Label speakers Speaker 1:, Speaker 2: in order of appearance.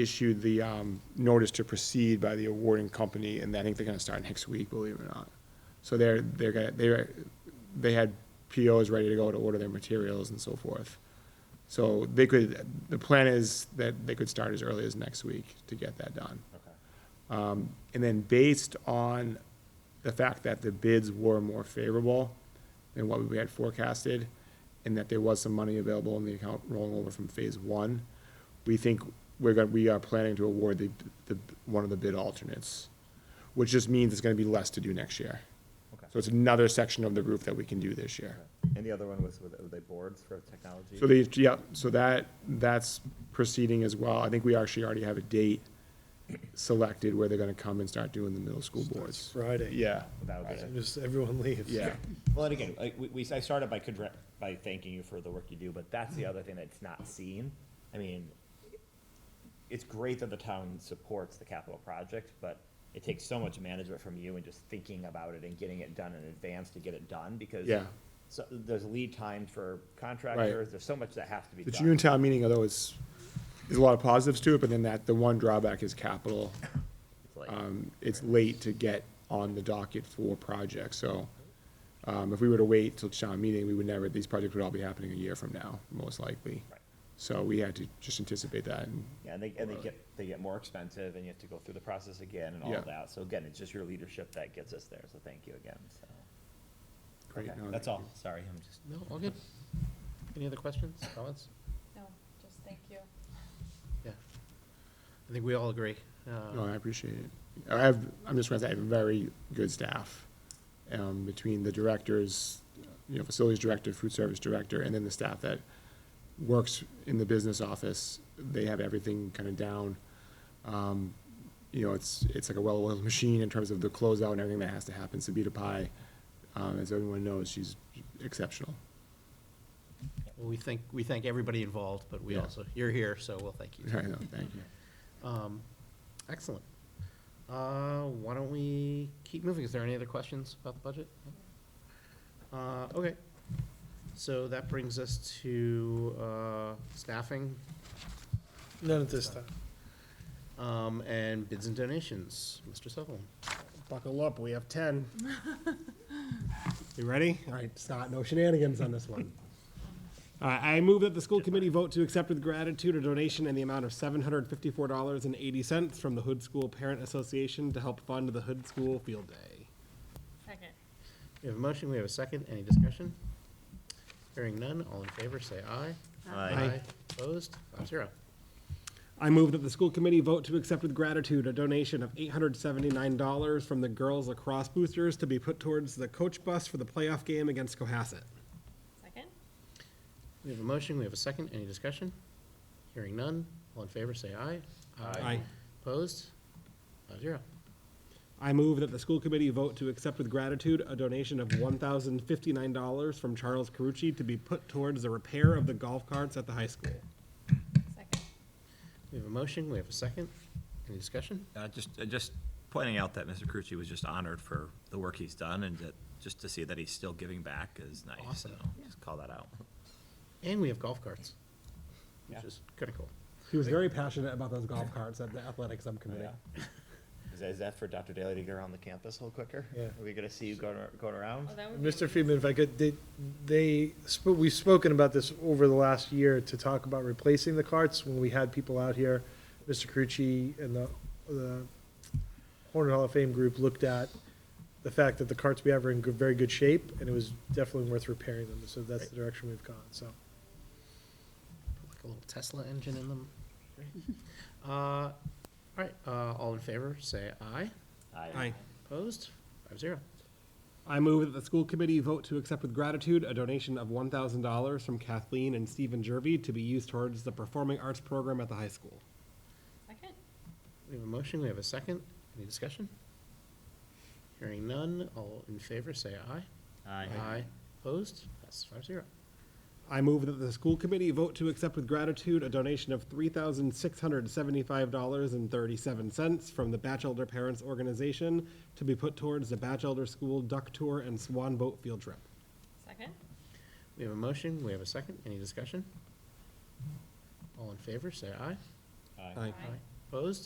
Speaker 1: issued the um, notice to proceed by the awarding company, and I think they're gonna start next week, believe it or not. So they're, they're gonna, they're, they had POs ready to go to order their materials and so forth. So they could, the plan is that they could start as early as next week to get that done. Um, And then based on the fact that the bids were more favorable than what we had forecasted, and that there was some money available in the account rolling over from phase one, we think we're going, we are planning to award the, the, one of the bid alternates, which just means it's going to be less to do next year.
Speaker 2: Okay.
Speaker 1: So it's another section of the roof that we can do this year.
Speaker 2: And the other one was, were they boards for technology?
Speaker 1: So they, yeah, so that, that's proceeding as well. I think we actually already have a date selected where they're gonna come and start doing the middle school boards.
Speaker 3: Friday.
Speaker 1: Yeah,
Speaker 2: That would be-
Speaker 3: Just everyone leaves.
Speaker 1: yeah,
Speaker 2: Well, and again, like, we, we, I started by congr- by thanking you for the work you do, but that's the other thing that's not seen. I mean, it's great that the town supports the capital project, but it takes so much management from you and just thinking about it and getting it done in advance to get it done, because
Speaker 1: Yeah.
Speaker 2: so, there's lead time for contractors, there's so much that has to be
Speaker 1: The
Speaker 2: done.
Speaker 1: June town meeting, although is, there's a lot of positives to it, but then that, the one drawback is capital.
Speaker 2: It's like-
Speaker 1: Um, it's late to get on the docket for projects, so, um, if we were to wait till town meeting, we would never, these projects would all be happening a year from now, most likely.
Speaker 2: Right.
Speaker 1: So we had to just anticipate that and
Speaker 2: Yeah, and they, and they get, they get more expensive and you have to go through the process again and all
Speaker 1: Yeah.
Speaker 2: of that. So again, it's just your leadership that gets us there. So thank you again, so.
Speaker 1: Great,
Speaker 2: Okay,
Speaker 1: no,
Speaker 2: That's
Speaker 1: thank
Speaker 2: all. Sorry, I'm just.
Speaker 4: No, all good. Any other questions, comments?
Speaker 5: No, just thank you.
Speaker 4: Yeah. I think we all agree.
Speaker 1: No,
Speaker 4: Uh,
Speaker 1: I appreciate it. I have, I'm just gonna say, I have very good staff, um, between the directors, you know, facilities director, food service director, and then the staff that works in the business office. They have everything kind of down. Um, you know, it's, it's like a well-oiled machine in terms of the closeout and everything that has to happen. Sabita Pai, um, as everyone knows, she's exceptional.
Speaker 4: well, We thank, we thank everybody involved, but we
Speaker 1: Yeah.
Speaker 4: also, you're here, so we'll thank you.
Speaker 1: I know, thank you.
Speaker 4: Um, Excellent. Uh, Why don't we keep moving? Is there any other questions about the budget? Uh, Okay. So that brings us to uh, staffing
Speaker 3: None at this time.
Speaker 4: um, and bids and donations. Mr. Sutherland?
Speaker 3: Buckle up, we have ten. You ready? All right, it's not, no shenanigans on this one. All right, I move that the school committee vote to accept with gratitude a donation in the amount of seven hundred and fifty-four dollars and eighty cents from the Hood School Parent Association to help fund the Hood School Field Day.
Speaker 5: Second.
Speaker 4: We have a motion, we have a second, any discussion? Hearing none, all in favor, say aye.
Speaker 3: Aye.
Speaker 4: Opposed, five zero.
Speaker 3: I move that the school committee vote to accept with gratitude a donation of eight hundred seventy-nine dollars from the girls lacrosse boosters to be put towards the coach bus for the playoff game against Cohasset.
Speaker 5: Second?
Speaker 4: We have a motion, we have a second, any discussion? Hearing none, all in favor, say aye.
Speaker 3: Aye.
Speaker 4: Opposed, five zero.
Speaker 3: I move that the school committee vote to accept with gratitude a donation of one thousand fifty-nine dollars from Charles Carucci to be put towards the repair of the golf carts at the high school.
Speaker 5: Second.
Speaker 4: We have a motion, we have a second, any discussion?
Speaker 6: Uh, Just, uh, just pointing out that Mr. Krucci was just honored for the work he's done, and that, just to see that he's still giving back is nice,
Speaker 4: Awesome.
Speaker 6: so just call that out.
Speaker 4: And we have golf carts, which
Speaker 2: Yeah.
Speaker 4: is critical.
Speaker 3: He was very passionate about those golf carts at the athletic subcommittee.
Speaker 2: Is that, is that for Dr. Daly to get around the campus a little quicker?
Speaker 7: Yeah.
Speaker 2: Are we gonna see you going, ar- going around?
Speaker 5: Well, that would be-
Speaker 7: Mr. Friedman, if I could, they, they, sp- we've spoken about this over the last year to talk about replacing the carts when we had people out here. Mr. Carucci and the, the Hornet Hall of Fame group looked at the fact that the carts we have are in good, very good shape, and it was definitely worth repairing them, so that's the direction we've gone, so.
Speaker 4: Put Like a little Tesla engine in them. Great. Uh, All right, uh, all in favor, say aye.
Speaker 2: Aye.
Speaker 4: Opposed, five zero.
Speaker 3: I move that the school committee vote to accept with gratitude a donation of one thousand dollars from Kathleen and Stephen Jervy to be used towards the performing arts program at the high school.
Speaker 5: Second?
Speaker 4: We have a motion, we have a second. Any discussion? Hearing none, all in favor, say aye.
Speaker 2: Aye.
Speaker 4: Opposed? Passes five zero.
Speaker 3: I move that the school committee vote to accept with gratitude a donation of three thousand six hundred seventy-five dollars and thirty-seven cents from the Batch Elder Parents Organization to be put towards the Batch Elder School Duck Tour and Swan Boat Field Trip.
Speaker 5: Second?
Speaker 4: We have a motion, we have a second. Any discussion? All in favor, say aye.
Speaker 2: Aye.
Speaker 5: Aye.
Speaker 4: Opposed?